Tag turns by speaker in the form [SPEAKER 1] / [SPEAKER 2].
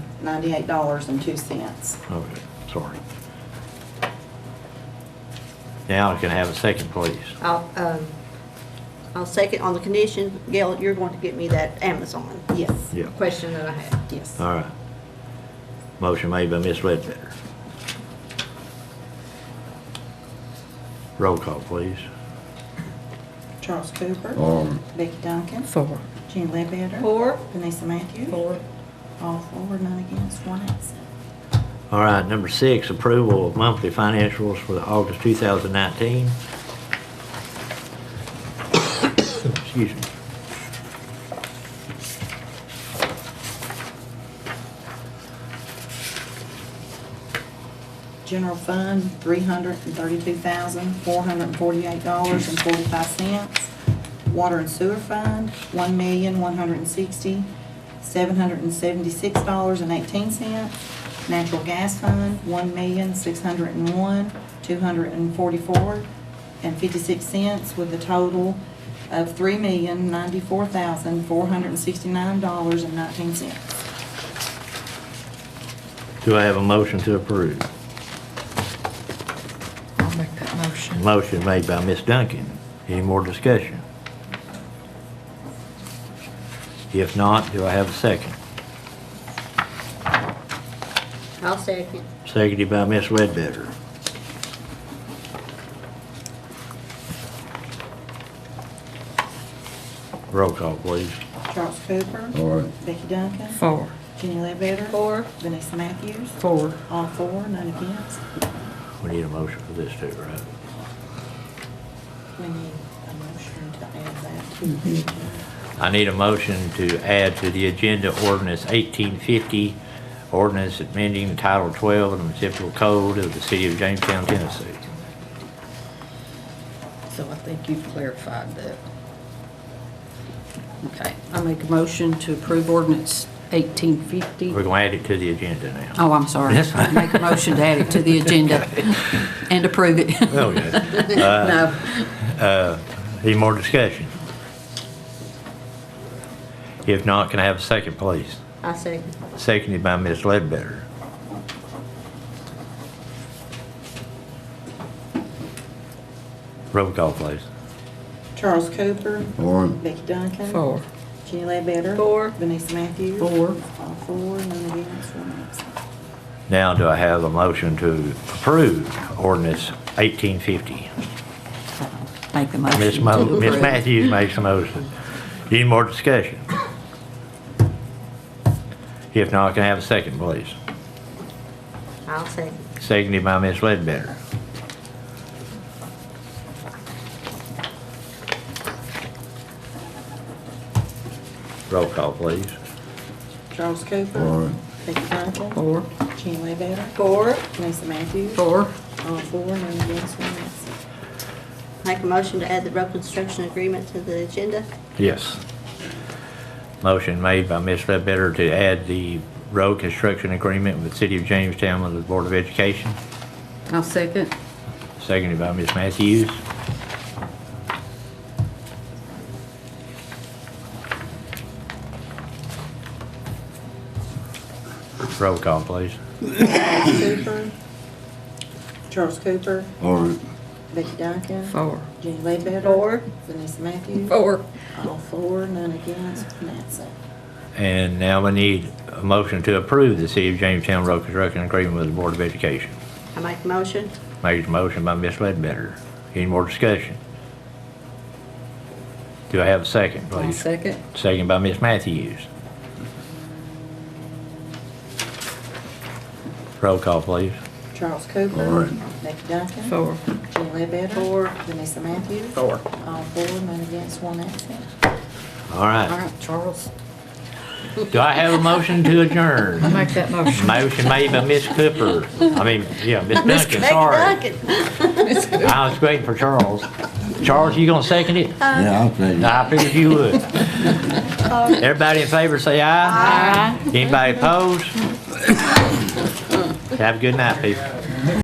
[SPEAKER 1] ninety-eight dollars and two cents.
[SPEAKER 2] Okay, Oh, sorry. Now I can have a second, please.
[SPEAKER 3] I'll, um, I'll second on the condition, Gail, you're going to get me that Amazon
[SPEAKER 1] Yes,
[SPEAKER 2] Yeah,
[SPEAKER 3] question that I had.
[SPEAKER 1] yes.
[SPEAKER 2] all right. Motion made by Ms. Ledbetter. Roll call, please.
[SPEAKER 1] Charles Cooper.
[SPEAKER 4] Um,
[SPEAKER 1] Becky Duncan.
[SPEAKER 5] Four.
[SPEAKER 1] Jean Ledbetter.
[SPEAKER 3] Four?
[SPEAKER 1] Vanessa Matthews. All four, none against, one absent.
[SPEAKER 2] All right, number six, approval of monthly financials for the August 2019. Excuse me.
[SPEAKER 1] General fund, three hundred and thirty-two thousand, four hundred and forty-eight dollars and forty-five cents. Water and sewer fund, one million, one hundred and sixty, seven hundred and seventy-six dollars and eighteen cents. Natural gas fund, one million, six hundred and one, two hundred and forty-four and fifty-six cents with a total of three million, ninety-four thousand, four hundred and sixty-nine dollars and nineteen cents.
[SPEAKER 2] Do I have a motion to approve?
[SPEAKER 5] I'll make that motion.
[SPEAKER 2] Motion made by Ms. Duncan. Any more discussion? If not, do I have a second?
[SPEAKER 3] I'll second.
[SPEAKER 2] Seconded by Ms. Ledbetter. Roll call, please.
[SPEAKER 1] Charles Cooper.
[SPEAKER 4] all right.
[SPEAKER 1] Becky Duncan.
[SPEAKER 5] Four.
[SPEAKER 1] Jenny Ledbetter.
[SPEAKER 3] Four?
[SPEAKER 1] Vanessa Matthews.
[SPEAKER 5] Four.
[SPEAKER 1] All four, none against.
[SPEAKER 2] We need a motion for this too, right?
[SPEAKER 1] We need a motion to add that to the agenda.
[SPEAKER 2] I need a motion to add to the agenda ordinance 1850, ordinance amending Title 12 of the municipal code of the city of Jamestown, Tennessee.
[SPEAKER 6] So I think you've clarified that. Okay, I make a motion to approve ordinance eighteen fifty.
[SPEAKER 2] We're going to add it to the agenda now.
[SPEAKER 6] Oh, I'm sorry.
[SPEAKER 2] That's fine.
[SPEAKER 6] Make a motion to add it to the agenda and approve it.
[SPEAKER 2] Okay.
[SPEAKER 6] No,
[SPEAKER 2] Uh, Any more discussion? If not, can I have a second, please?
[SPEAKER 3] I second.
[SPEAKER 2] Seconded by Ms. Ledbetter. Roll call, please.
[SPEAKER 1] Charles Cooper.
[SPEAKER 4] All right.
[SPEAKER 1] Becky Duncan.
[SPEAKER 5] Four.
[SPEAKER 1] Jenny Ledbetter.
[SPEAKER 3] Four.
[SPEAKER 1] Vanessa Matthews.
[SPEAKER 6] Four.
[SPEAKER 1] All four, none against, one absent.
[SPEAKER 2] Now, do I have a motion to approve ordinance 1850?
[SPEAKER 6] make the motion.
[SPEAKER 2] Ms.
[SPEAKER 6] to
[SPEAKER 2] Mo- Ms.
[SPEAKER 6] approve.
[SPEAKER 2] Matthews makes a motion. Any more discussion? If not, can I have a second, please?
[SPEAKER 3] I'll second.
[SPEAKER 2] Seconded by Ms. Ledbetter. Roll call, please.
[SPEAKER 1] Charles Cooper.
[SPEAKER 4] All right.
[SPEAKER 1] Becky Duncan.
[SPEAKER 5] Four.
[SPEAKER 1] Jenny Ledbetter.
[SPEAKER 3] Four?
[SPEAKER 1] Vanessa Matthews.
[SPEAKER 6] Four,
[SPEAKER 1] All four, none against, one absent.
[SPEAKER 3] Make a motion to add the road construction agreement to the agenda.
[SPEAKER 2] Yes. Motion made by Ms. Ledbetter to add the road construction agreement with the City of Jamestown with the Board of Education.
[SPEAKER 6] I'll second.
[SPEAKER 2] Seconded by Ms. Matthews. Roll call, please.
[SPEAKER 1] Charles Cooper. Charles Cooper.
[SPEAKER 4] All right.
[SPEAKER 1] Becky Duncan.
[SPEAKER 5] Four.
[SPEAKER 1] Jenny Ledbetter.
[SPEAKER 3] Four.
[SPEAKER 1] Vanessa Matthews.
[SPEAKER 5] Four.
[SPEAKER 1] All four, none against, one absent.
[SPEAKER 2] And now we need a motion to approve the City of Jamestown Road Construction Agreement with the Board of Education.
[SPEAKER 3] I make a motion.
[SPEAKER 2] Made a motion by Ms. Ledbetter. Any more discussion? Do I have a second,
[SPEAKER 6] I'll
[SPEAKER 2] please?
[SPEAKER 6] second.
[SPEAKER 2] Second by Ms. Matthews. Roll call, please.
[SPEAKER 1] Charles Cooper.
[SPEAKER 4] All right.
[SPEAKER 1] Becky Duncan.
[SPEAKER 5] Four.
[SPEAKER 1] Jenny Ledbetter. Four. Vanessa Matthews.
[SPEAKER 5] Four.
[SPEAKER 1] All four, none against, one absent.
[SPEAKER 2] All
[SPEAKER 6] All
[SPEAKER 2] right.
[SPEAKER 6] right, Charles.
[SPEAKER 2] Do I have a motion to adjourn?
[SPEAKER 5] I'll make that motion.
[SPEAKER 2] Motion made by Ms. Cooper. I mean, yeah, Ms. Duncan, sorry. I was waiting for Charles. Charles, you gonna second it?
[SPEAKER 4] Yeah, I'll say.
[SPEAKER 2] I figured you would. Everybody in favor, say aye. Aye. Anybody opposed? Have a good night, people.